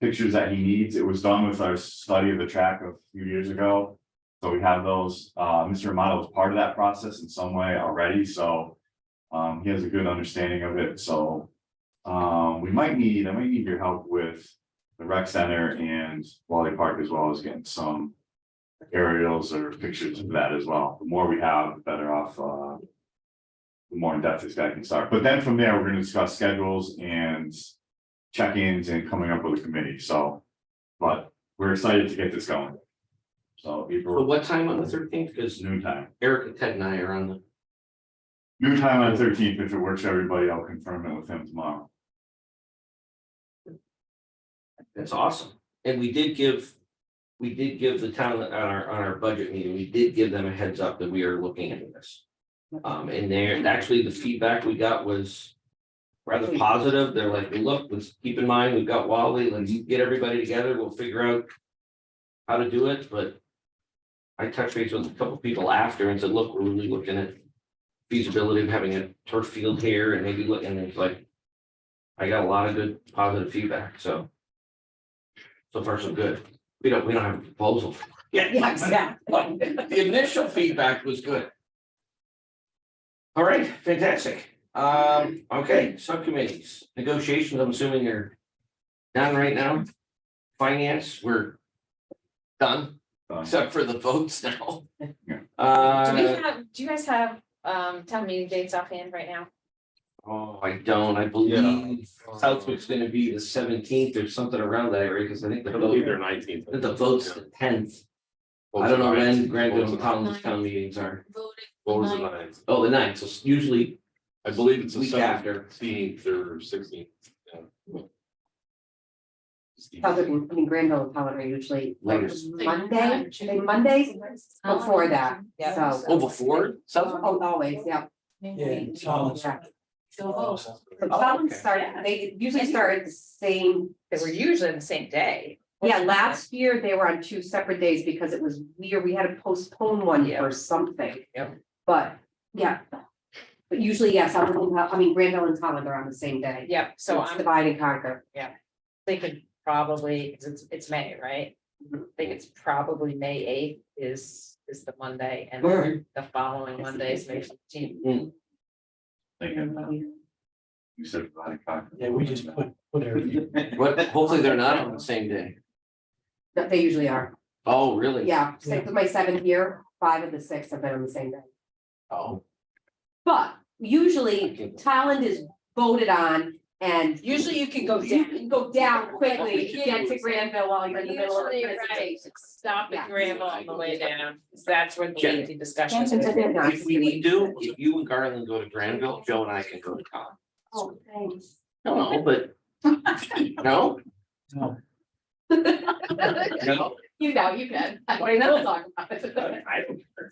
pictures that he needs. It was done with our study of the track a few years ago. So we have those. Uh, Mr. Amato was part of that process in some way already, so um, he has a good understanding of it, so um, we might need, I might need your help with the rec center and Wally Park as well as getting some aerials or pictures of that as well. The more we have, the better off, uh, the more in-depth this guy can start. But then from there, we're gonna discuss schedules and check-ins and coming up with a committee, so. But we're excited to get this going. So So April, what time on the thirteenth? it's Because noon time. Eric and Ted and I are on the, Noon time on thirteenth, if it works for everybody, I'll confirm it with him tomorrow. that's awesome. And we did give, we did give the town on our, on our budget meeting, we did give them a heads up that we are looking into this. Um, and there, and actually the feedback we got was rather positive. They're like, look, let's keep in mind, we've got Wally, let's get everybody together, we'll figure out how to do it, but I touched base with a couple people after and said, look, we're really looking at feasibility of having a turf field here and maybe look, and it's like I got a lot of good positive feedback, so so far so good. We don't, we don't have a proposal. yet, Yeah, exactly. but The initial feedback was good. All right, fantastic. Um, okay, subcommittees, negotiations, I'm assuming you're done right now. Finance, we're done. Uh, Except for the votes now. Yeah. Do we Uh, have, do you guys have um town meeting dates offhand right now? oh, I don't, I believe Southwick's gonna be the seventeenth or something around that area, because I think the I believe they're vote, nineteenth. I think the vote's the tenth. I don't know when Granville and Collins town meetings are. Votes are ninth. Oh, the ninth, so it's usually I believe it's the week after. seventeenth or sixteenth. Public, I mean, Granville and Pollitt are usually like Latest. Monday, like Mondays before that, so. Oh, before Southwick? Oh, always, yeah. Yeah, Yeah. Oh, So But Some okay. start, they usually start at the same, they were usually on the same day. yeah, last year they were on two separate days because it was weird, we had to postpone one Yeah. for something. Yep. But, yeah. But usually, yes, I would- I mean, Granville and Pollitt are on the same day. Yep, so It's I'm Divide and conquer. thinking probably, 'cause it's it's May, right? Mm-hmm. I think it's probably May eighth is is the Monday and Alright. the following Monday is May fifteenth. Thinking, you said. Friday, cock- Yeah, we just put, put everything. But hopefully they're not on the same day. That they usually are, Oh, really? yeah, six of my seven here, five of the six have been on the same day. Oh. But usually Thailand is voted on and usually you can go down, you can go down quickly to get to Granville while you're in the middle of the presentation. stop at Granville on the way down, that's where the lengthy discussion is. Jen. If we need to, if you and Garland go to Granville, Joe and I can go to Collins. Oh, thanks. No, but. No? No. No? You know, you can. Why not? We'll talk about it. I don't. care.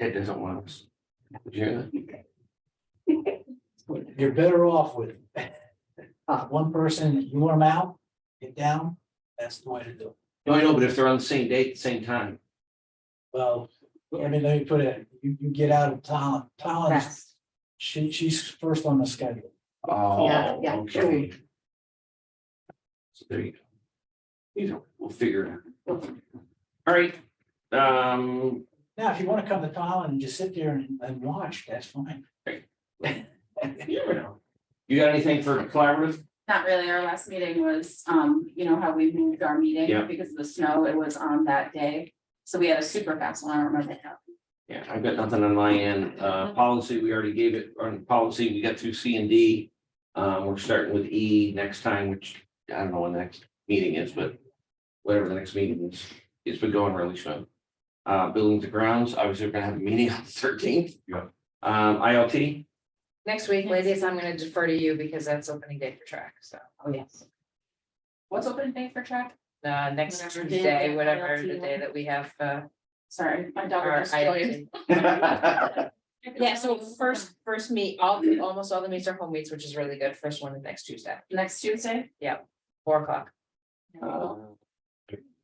It doesn't want us. Did you hear that? You're better off with Oh. one person, you want them out, get down, that's the way to do it. No, I know, but if they're on the same date, at the same time, Well, I mean, let me put it, you, you get out of town, Collins, Fast. she, she's first on the schedule. oh, Yeah, yeah. okay. So there you go. You know, we'll figure it out. All right, um, Now, if you want to come to Collins and just sit there and, and watch, that's fine. you never know. You got anything for collaborative? Not really, our last meeting was, um, you know, how we moved our Yeah. meeting because of the snow, it was on that day. So we had a super fast one, I don't remember how. Yeah, I've got nothing on my end. Uh, policy, we already gave it, on policy, we got through C and D. Um, we're starting with E next time, which I don't know when the next meeting is, but whatever the next meeting is, it's been going really slow. Uh, buildings and grounds, obviously, we're gonna have a meeting on the thirteenth. Yeah. Um, ILT, Next week, ladies, I'm gonna defer to you because that's opening day for track, so. Oh, yes. What's open day for track? Uh, next Whatever day Tuesday, that whatever ILT the day that we have, uh, Sorry, my daughter our just joined. ILT. Yeah, so first, first meet, all, almost all the meets are home meets, which is really good. First one is next Tuesday, Next Tuesday? four o'clock. uh,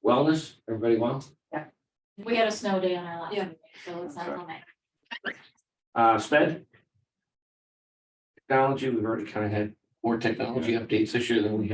wellness, everybody well? We had a snow day on our last Yeah. meeting, so it's not on that. Uh, sped? Technology, we've already kind of had more technology updates this year than we had.